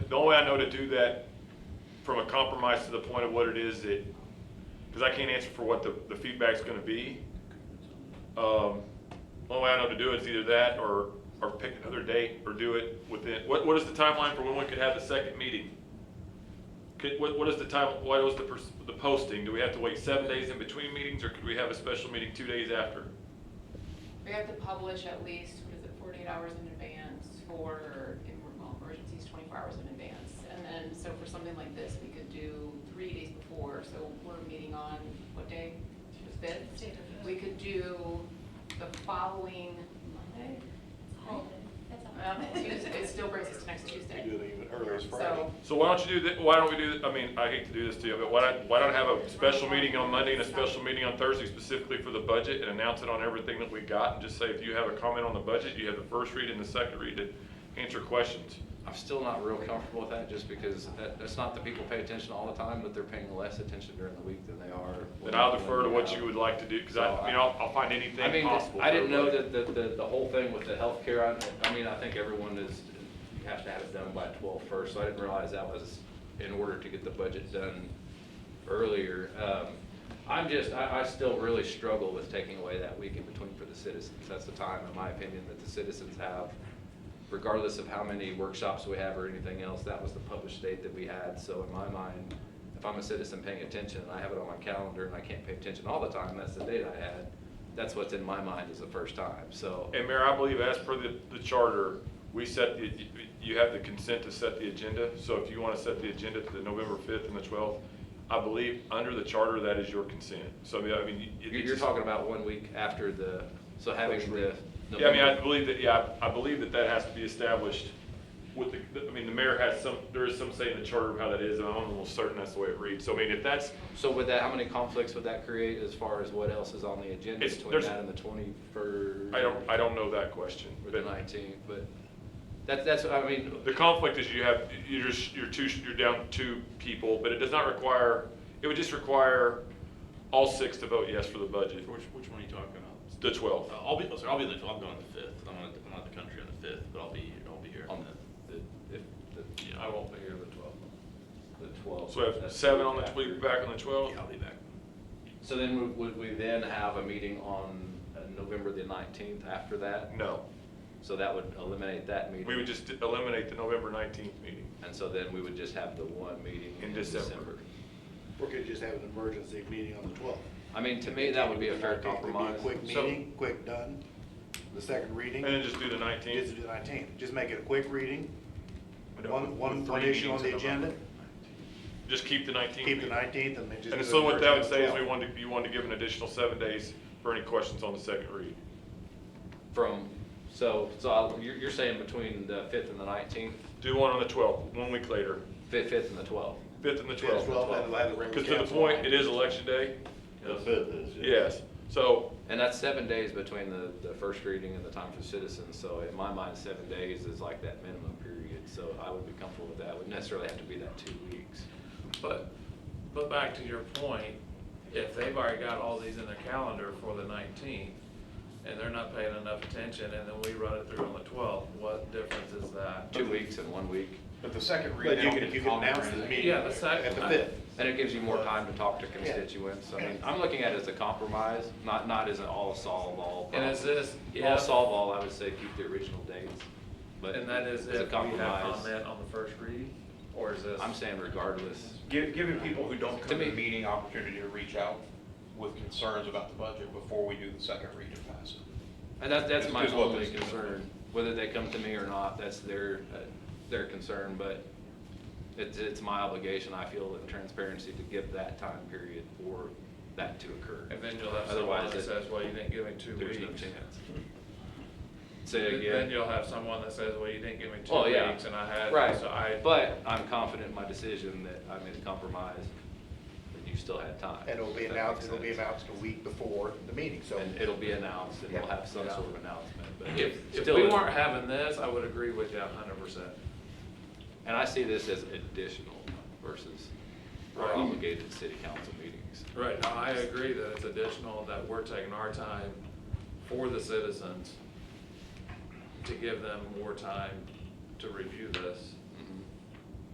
only way I know to do that from a compromise to the point of what it is that, because I can't answer for what the, the feedback's gonna be. Um, only way I know to do it is either that or, or pick another date or do it within, what, what is the timeline for when we could have the second meeting? Could, what, what is the time, what was the, pers- the posting? Do we have to wait seven days in between meetings or could we have a special meeting two days after? We have to publish at least, what is it, 48 hours in advance for, in- well, emergencies, 24 hours in advance. And then, so for something like this, we could do three days before, so we're meeting on, what day? The 5th? We could do the following Monday? Um, Tuesday, it still brings us to next We do Tuesday. it even earlier as Friday. So, So why don't you do that, why don't we do, that? I mean, I hate to do this to you, but why don't, why don't I have a special meeting on Monday and a special meeting on Thursday specifically for the budget and announce it on everything that we got and just say, if you have a comment on the budget, you have the first read and the second read to answer questions. I'm still not real comfortable with that, just because that, that's not that people pay attention all the time, but they're paying less attention during the week than they are. Then I'll defer to what you would like to do, because I, I mean, I'll, I'll find I anything mean, possible. I didn't know for that, everybody. the the, the whole thing with the healthcare, I, I mean, I think everyone is, you have to have it done by twelve first, so I didn't realize that was in order to get the budget done earlier. Um, I'm just, I, I still really struggle with taking away that week in between for the citizens. That's the time, in my opinion, that the citizens have, regardless of how many workshops we have or anything else, that was the published date that we had, so in my mind, if I'm a citizen paying attention and I have it on my calendar and I can't pay attention all the time, that's the date I had, that's what's in my mind is the first time, so. And Mayor, I believe as per the, the charter, we set the, you have the consent to set the agenda. So if you want to set the agenda to the November 5th and the 12th, I believe under the charter, that is your consent. So I mean, I mean. it- You're, you're talking about one week after the, so having the. Yeah, I mean, I believe that, yeah, I I believe that that has to be established with the, I mean, the mayor has some, there is some say in the charter of how that is, and I'm almost certain that's the way it reads. So I mean, if that's, So with that, how many conflicts would that create as far as what else is on the agenda It's- between there's- that and the twenty-first? I don't, I don't know that question. Or the but- nineteenth, but that's, that's, I mean, The conflict is you have, you're just, you're two, you're down two people, but it does not require, it would just require all six to vote yes for the budget, Which, which one are you talking about? the Uh, 12th. I'll be, sorry, I'll be the, I'm going on the fifth. I'm not, I'm not the country on the fifth, but I'll be, I'll be here on on the. the, the- if, the, Yeah. I won't be here the twelfth. The twelfth. So we have seven on the, tw- we'll be back on the Oh. Yeah, 12th. I'll be back. So then would, would we then have a meeting on uh, November the nineteenth after that? No, So that would eliminate that meeting? Mm-hmm. we would just eliminate the November 19th meeting. And so then we would just have the one meeting In in December. December. Or could just have an emergency meeting on the 12th. I mean, to me, that would be a fair It'd be a compromise. Quick So- meeting, quick done, the second reading. And then just do the 19th. Just do the 19th. Just make it a quick reading, I don't- one, one, with one three issue on the meetings in agenda, November. Just keep the 19th. keep the meeting. 19th and then just. And do so the what that would say is we emergency on wanted, you wanted to give an additional seven days for any questions on the second read. From, so, so I- you're, you're saying between the fifth and the nineteenth, Do one on the 12th, one week later, fifth, fifth and the twelfth? 5th and the 12th. Yeah, 12th. 12th, and we'll have the regular Because to the council point, on it is election day. The fifth is. Yes. So, And that's seven days between the, the first reading and the time for citizens, so in my mind, seven days is like that minimum period, so I would be comfortable with that, wouldn't necessarily have to be that two weeks. But, but back to your point, if they've already got all these in their calendar for the nineteenth, and they're not paying enough attention, and then we run it through on the twelfth, what difference is that? Two weeks and one week, But the second read. But they you don't can, get you can comment announce or the anything. meeting Yeah, the sec- at the 5th. Uh, and it gives you more time to talk to constituents, I mean, I'm looking at it as a compromise, not, not as an all solve all. And is this- All solve all, I would say keep the original dates, but. And that as is a if we have compromise, comment on the first read, or is this? I'm saying regardless, Gi- Giving people who don't To come to the me- meeting opportunity to reach out with concerns about the budget before we do the second read and pass it. And that, that's my Is what only this is. concern, whether they come to me or not, that's their, uh, their concern, but it's, it's my obligation, I feel, in transparency to give that time period for that to occur. And then you'll have someone that Otherwise, it- says, well, you didn't give me two weeks. There's no chance. Say Then- Then again. you'll have someone that says, well, you didn't give me two Oh, yeah. weeks, and I had, Right, so I. but I'm confident in my decision that I made a compromise, and you still had time. And it'll be if that announced, makes it'll be sense. announced a week before the meeting, so. And it'll be announced, and we'll Yeah. have some sort of announcement, but. If, if still we it's- weren't having this, I would agree with you a hundred percent. And I see this as additional versus our Right. obligated city council meetings. Right, now, I agree that it's additional, that we're taking our time for the citizens to give them more time to review this.